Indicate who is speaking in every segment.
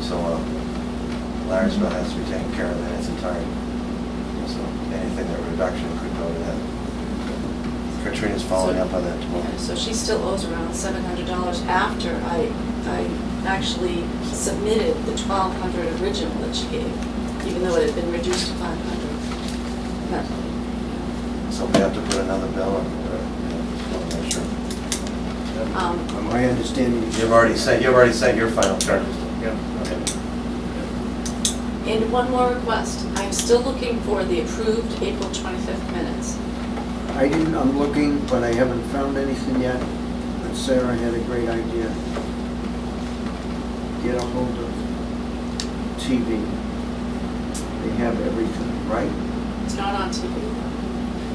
Speaker 1: so on. Larry'sville has to be taken care of in its entirety. So anything that reduction could go to that. Katrina's following up on that
Speaker 2: Yeah, So
Speaker 1: tomorrow.
Speaker 2: she still owes around seven hundred dollars after I, I actually submitted the twelve hundred original that she gave, even though it had been reduced to five hundred.
Speaker 1: So we have to put another bill in, or, uh, make sure.
Speaker 2: Um,
Speaker 3: Am I understanding?
Speaker 1: You've already sent, you've already sent your final charges.
Speaker 3: Yeah.
Speaker 1: Okay.
Speaker 2: And one more request, I'm still looking for the approved April twenty-fifth minutes.
Speaker 3: I didn't, I'm looking, but I haven't found anything yet. But Sarah had a great idea. Get a hold of TV. They have everything, right?
Speaker 2: It's not on TV.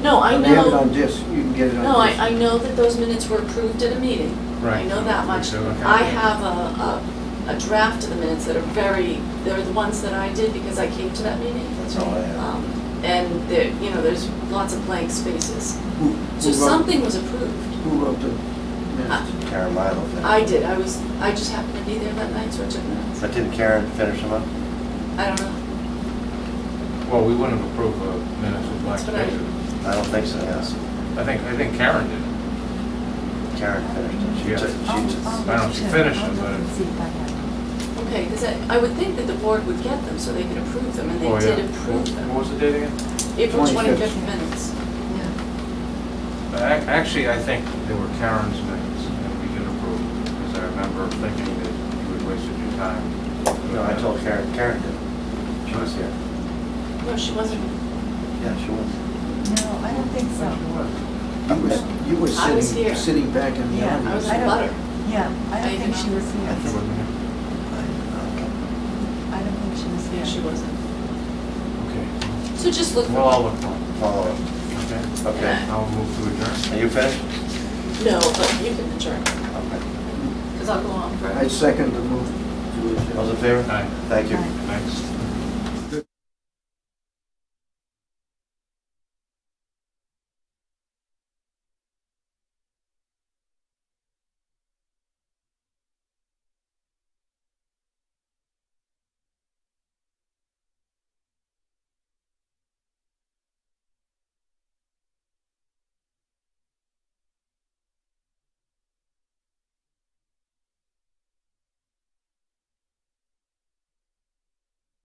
Speaker 2: No, I
Speaker 3: They have it on
Speaker 2: know,
Speaker 3: disc, you can get it on disc.
Speaker 2: no, I, I know that those minutes were approved at a meeting. I
Speaker 4: Right.
Speaker 2: know that much.
Speaker 4: So, okay.
Speaker 2: I have a, a, a draft of the minutes that are very, they're the ones that I did because I came to that meeting.
Speaker 1: That's all I have.
Speaker 2: Um, And there, you know, there's lots of blank spaces.
Speaker 3: Who- who
Speaker 2: So
Speaker 3: wrote-
Speaker 2: something Uh, was approved.
Speaker 3: Who wrote the minutes?
Speaker 1: Karen Milo finished.
Speaker 2: I did, I was, I just happened to be there that night, so I took minutes.
Speaker 1: But didn't Karen finish them up?
Speaker 2: I don't know.
Speaker 4: Well, we wouldn't approve a minutes with black
Speaker 2: That's what I-
Speaker 4: spaces.
Speaker 1: I don't think so, yes.
Speaker 4: I think, I think Karen did it.
Speaker 1: Karen finished it. She
Speaker 4: Yeah.
Speaker 1: took,
Speaker 2: Oh,
Speaker 1: she took.
Speaker 4: I don't know if she finished it, but-
Speaker 2: Okay, because I, I would think that the board would get them so they could approve them, and
Speaker 4: Oh,
Speaker 2: they
Speaker 4: yeah.
Speaker 2: did approve
Speaker 4: What
Speaker 2: them.
Speaker 4: was the date again?
Speaker 2: April
Speaker 3: 25th.
Speaker 2: twenty-fifth minutes. Yeah.
Speaker 4: A- Actually, I think they were Karen's minutes, and we did approve, because I remember thinking that you had wasted your
Speaker 2: oh.
Speaker 4: time.
Speaker 1: No, I told Karen, Karen did. She was here.
Speaker 2: No, she wasn't.
Speaker 1: Yeah, she was.
Speaker 5: No, I don't think so.
Speaker 3: You was, you were
Speaker 2: I was here.
Speaker 3: sitting, sitting back in the
Speaker 5: Yeah,
Speaker 3: audience.
Speaker 2: I was
Speaker 5: I
Speaker 2: in
Speaker 5: don't-
Speaker 2: butter.
Speaker 5: Yeah, I
Speaker 2: Are you
Speaker 5: don't think she
Speaker 2: gonna-
Speaker 5: was
Speaker 4: I think it
Speaker 5: here.
Speaker 4: wasn't it.
Speaker 1: I-
Speaker 5: I don't think she was
Speaker 2: Yeah, she
Speaker 5: here.
Speaker 2: wasn't.
Speaker 4: Okay.
Speaker 2: So just look. for
Speaker 4: Well, I'll look for it.
Speaker 1: okay. Follow up.
Speaker 4: Okay.
Speaker 1: Oh, Okay.
Speaker 4: I'll move to adjourn.
Speaker 1: Are you finished?
Speaker 2: No, but you can adjourn,
Speaker 1: Okay.
Speaker 2: because I'll go on forever.
Speaker 3: I second the move. to adjourn.
Speaker 1: All those in favor?
Speaker 4: Aye.
Speaker 1: Thank you.
Speaker 5: Aye.
Speaker 4: Thanks.